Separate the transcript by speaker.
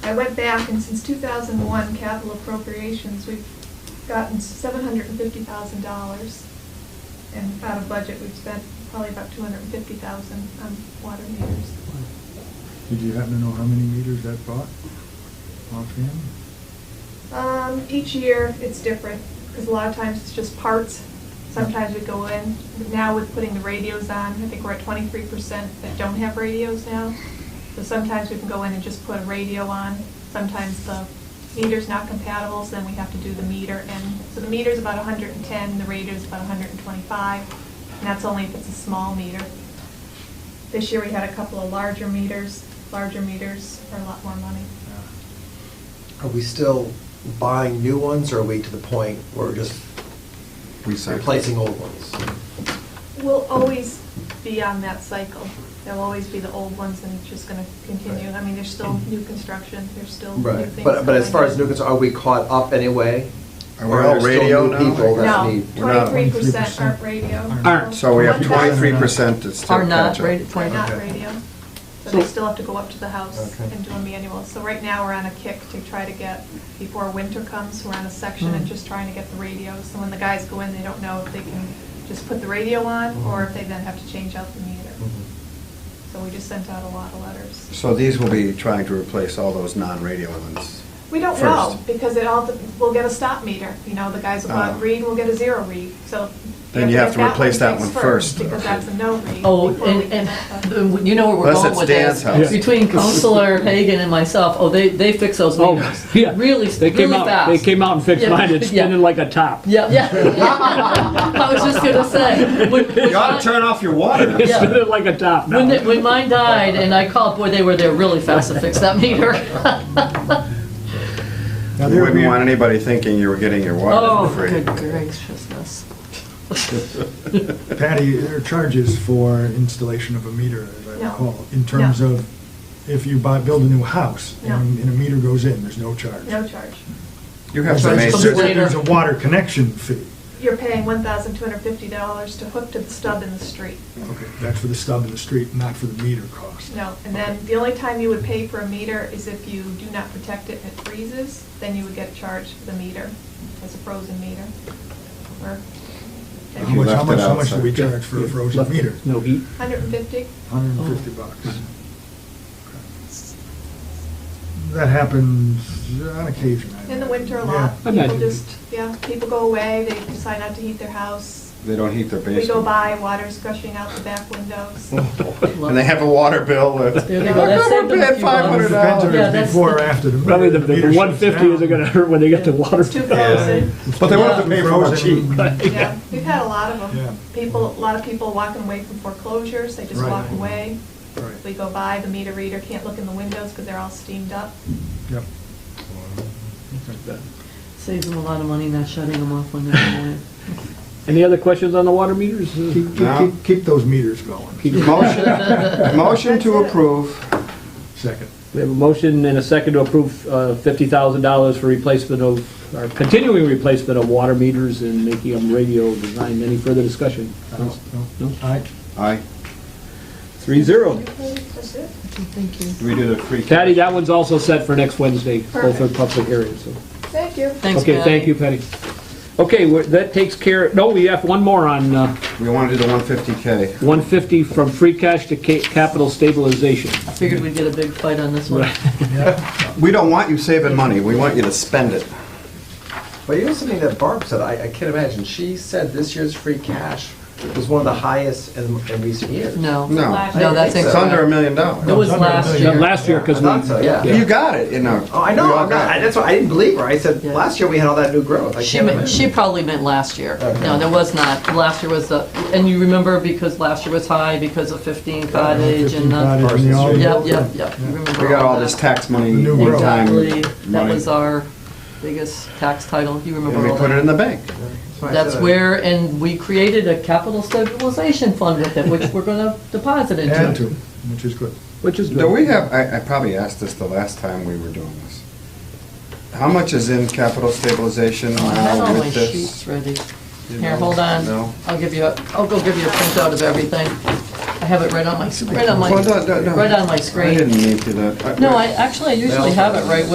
Speaker 1: I went back and since two thousand one capital appropriations, we've gotten seven hundred and fifty thousand dollars. And out of budget, we've spent probably about two hundred and fifty thousand on water meters.
Speaker 2: Did you happen to know how many meters that bought offhand?
Speaker 1: Um, each year, it's different, because a lot of times it's just parts. Sometimes we go in, now with putting the radios on, I think we're at twenty-three percent that don't have radios now. So sometimes we can go in and just put a radio on, sometimes the meter's not compatible, so then we have to do the meter. And, so the meter's about hundred and ten, the radio's about hundred and twenty-five, and that's only if it's a small meter. This year, we had a couple of larger meters, larger meters are a lot more money.
Speaker 3: Are we still buying new ones, or are we to the point where we're just replacing old ones?
Speaker 1: We'll always be on that cycle. There'll always be the old ones, and it's just gonna continue. I mean, there's still new construction, there's still new
Speaker 3: Right,
Speaker 1: things
Speaker 3: but, but as
Speaker 1: going
Speaker 3: far
Speaker 1: on.
Speaker 3: as new concerns, are we caught up anyway?
Speaker 4: Are we all
Speaker 3: Or there
Speaker 4: radio
Speaker 3: still new
Speaker 4: now?
Speaker 3: people that
Speaker 1: No,
Speaker 3: need?
Speaker 4: We're not-
Speaker 1: twenty-three percent aren't
Speaker 2: 23%
Speaker 1: radio.
Speaker 2: aren't.
Speaker 4: So we have
Speaker 1: One
Speaker 4: twenty-three percent that's still
Speaker 5: Are not
Speaker 4: catch up.
Speaker 5: rated
Speaker 1: They're not
Speaker 5: 20.
Speaker 3: Okay.
Speaker 1: radio, so they still have to go up to the house
Speaker 3: Okay.
Speaker 1: and do a manual. So right now, we're on a kick to try to get, before winter comes, we're on a section and
Speaker 4: Hmm.
Speaker 5: Mm.
Speaker 1: just trying to get the radios. So when the guys go in, they don't know if they can just put the radio on,
Speaker 4: Hmm.
Speaker 1: or if they then have to change out the meter. So we just sent out a lot of letters.
Speaker 4: So these will be trying to replace all those non-radio ones.
Speaker 1: We don't know,
Speaker 4: first.
Speaker 1: because it all, we'll get a stop meter, you know, the guys will go out
Speaker 4: Ah.
Speaker 1: and read, we'll get a zero read, so.
Speaker 4: Then you have to replace that one first.
Speaker 1: Because that's a no read.
Speaker 5: Oh,
Speaker 1: before we
Speaker 5: and,
Speaker 1: can
Speaker 5: and
Speaker 1: have the-
Speaker 5: the- you know where we're
Speaker 4: Unless
Speaker 5: going
Speaker 4: it's
Speaker 5: with
Speaker 4: Dan's
Speaker 5: this.
Speaker 4: house.
Speaker 5: Between Counselor Hagan and myself, oh, they, they fix those
Speaker 6: Oh,
Speaker 5: meters.
Speaker 6: yeah.
Speaker 5: Really,
Speaker 6: They came
Speaker 5: really
Speaker 6: out, they
Speaker 5: fast.
Speaker 6: came out and fixed
Speaker 5: Yeah,
Speaker 6: mine, it's
Speaker 5: yeah.
Speaker 6: spinning like a top.
Speaker 5: Yeah, yeah. I was just gonna say. when- when
Speaker 4: You ought
Speaker 5: mine-
Speaker 4: to turn off your water.
Speaker 6: It's
Speaker 5: Yeah.
Speaker 6: spinning like a top
Speaker 5: When,
Speaker 6: now.
Speaker 5: they- when mine died and I called, boy, they were there really fast to fix that meter.
Speaker 2: Now,
Speaker 4: You
Speaker 2: there
Speaker 4: wouldn't want
Speaker 2: are,
Speaker 4: anybody thinking you were getting your water
Speaker 5: Oh,
Speaker 4: for free.
Speaker 5: good graciousness.
Speaker 2: Patty, there are charges for installation of a meter, as I
Speaker 1: No.
Speaker 2: recall, in terms
Speaker 1: No.
Speaker 2: of if you buy, build a new house
Speaker 1: No.
Speaker 2: and and a meter goes in, there's no charge.
Speaker 1: No charge.
Speaker 4: You have
Speaker 2: There's
Speaker 4: to
Speaker 5: Sorry,
Speaker 4: make,
Speaker 5: it's
Speaker 2: there's-
Speaker 5: later.
Speaker 2: there's a water connection fee.
Speaker 1: You're paying one thousand two hundred fifty dollars to hook to the stub in the street.
Speaker 2: Okay, that's for the stub in the street, not for the meter cost.
Speaker 1: No, and then the only time you would pay for a meter is if you do not protect it and it freezes, then you would get charged for the meter, as a frozen meter. Or
Speaker 2: How
Speaker 4: you
Speaker 2: much, how
Speaker 4: left
Speaker 2: much,
Speaker 4: it
Speaker 2: how much do
Speaker 4: outside.
Speaker 2: we charge for a frozen meter?
Speaker 6: No heat.
Speaker 1: hundred and fifty?
Speaker 2: Hundred and fifty bucks. That happens on occasion. I
Speaker 1: In the
Speaker 2: imagine.
Speaker 1: winter a
Speaker 2: Yeah.
Speaker 1: lot. People
Speaker 6: Imagine.
Speaker 1: just, yeah, people go away, they decide not to heat their house.
Speaker 4: they don't heat their
Speaker 1: We go
Speaker 4: basement.
Speaker 1: by, water's gushing out the back windows.
Speaker 2: Oh.
Speaker 4: And they have a water bill that's.
Speaker 5: There they go, that saved them a
Speaker 4: Pay
Speaker 5: few bucks.
Speaker 2: Well, it Depends if
Speaker 4: $500.
Speaker 5: Yeah,
Speaker 2: it's
Speaker 5: that's-
Speaker 2: before or after the.
Speaker 6: Probably the,
Speaker 2: meter
Speaker 6: the
Speaker 2: shuts
Speaker 6: one fifty isn't
Speaker 2: down.
Speaker 6: gonna hurt when they get the water.
Speaker 1: It's too
Speaker 2: Yeah.
Speaker 1: frozen.
Speaker 4: But they
Speaker 5: want
Speaker 4: want to
Speaker 5: to
Speaker 4: pay for it cheap.
Speaker 2: Frozen.
Speaker 1: Yeah, we've had a lot of
Speaker 2: Yeah.
Speaker 1: them. People, a lot of people walking away from foreclosures, they just
Speaker 2: Right.
Speaker 1: walk away.
Speaker 2: Right,
Speaker 1: We go by, the meter reader can't look in the windows because they're all steamed up.
Speaker 2: yep.
Speaker 5: Saves them a lot of money not shutting them off when they're in
Speaker 6: Any other questions on the water meters?
Speaker 5: Hmm.
Speaker 2: Keep, keep-
Speaker 4: No.
Speaker 2: keep, keep those meters going.
Speaker 4: Motion, motion to
Speaker 1: That's it.
Speaker 4: approve.
Speaker 2: Second.
Speaker 6: We have a motion and a second to approve uh, $50,000 for replacement of, or continuing replacement of water meters and making them radio designed. Any further discussion? Uh,
Speaker 2: No, no.
Speaker 6: No.
Speaker 2: Aye.
Speaker 4: Aye.
Speaker 6: Three zero.
Speaker 1: That's it.
Speaker 5: Thank you.
Speaker 4: Do we do the free?
Speaker 6: Patty, that one's also set for next Wednesday, both are
Speaker 1: Perfect.
Speaker 6: public areas, so.
Speaker 1: Thank you.
Speaker 5: Thanks,
Speaker 6: Okay, thank you, Patty. Okay, we're- that takes care, no, we have one more on uh,
Speaker 4: We want to do the one fifty K.
Speaker 6: 150 from free cash to ca- capital stabilization.
Speaker 5: I figured we'd get a big fight on this one.
Speaker 4: We don't want you saving money, we want you to spend it.
Speaker 3: But you know something that Barb said, I, I can't imagine, she said this year's free cash was one of the highest in, in recent years.
Speaker 5: No.
Speaker 4: No,
Speaker 5: No, that's
Speaker 4: it's under a million dollars.
Speaker 5: It was last
Speaker 6: Not
Speaker 5: year.
Speaker 6: Last year,
Speaker 3: I
Speaker 6: because we.
Speaker 3: thought so, yeah.
Speaker 4: You got it, you know.
Speaker 3: Oh, I
Speaker 4: We
Speaker 3: know,
Speaker 4: all
Speaker 3: I'm not,
Speaker 4: got
Speaker 3: I-
Speaker 4: it.
Speaker 3: that's why, I didn't believe her, I said,
Speaker 5: Yeah.
Speaker 3: last year we had all that new growth, I
Speaker 5: She,
Speaker 3: can't
Speaker 5: meant-
Speaker 3: imagine.
Speaker 5: she probably meant last year. No, there was not. Last year was the, and you remember because last year was high because of 15 cottage
Speaker 2: Fifteen
Speaker 5: and the,
Speaker 2: cottage and the all-
Speaker 5: yep, yep, yep. You remember
Speaker 4: We got all
Speaker 5: that.
Speaker 4: this tax money
Speaker 2: The new
Speaker 4: in
Speaker 2: world.
Speaker 4: time.
Speaker 5: Exactly. That
Speaker 4: money,
Speaker 5: was our biggest tax title. You
Speaker 4: And
Speaker 5: remember
Speaker 4: we
Speaker 5: all
Speaker 4: put it
Speaker 5: that.
Speaker 4: in the bank.
Speaker 3: why I
Speaker 5: That's
Speaker 3: said-
Speaker 5: where, and we created a capital stabilization fund with it, which we're gonna deposit
Speaker 2: Add
Speaker 5: into.
Speaker 2: to, which is good.
Speaker 6: Which is
Speaker 4: Do
Speaker 6: good.
Speaker 4: we have, I, I probably asked this the last time we were doing this. How much is in capital stabilization
Speaker 5: I had
Speaker 4: now
Speaker 5: all Oh, my
Speaker 4: with this?
Speaker 5: sheets ready.
Speaker 4: You
Speaker 5: Here,
Speaker 4: know?
Speaker 5: hold on.
Speaker 4: No?
Speaker 5: I'll give you, a- I'll go give you a printout of everything. I have it right on my, right on my,
Speaker 4: Well, no, no, no.
Speaker 5: right on my
Speaker 4: I
Speaker 5: screen.
Speaker 4: didn't mean to do that.
Speaker 5: No, I, actually, I usually have it right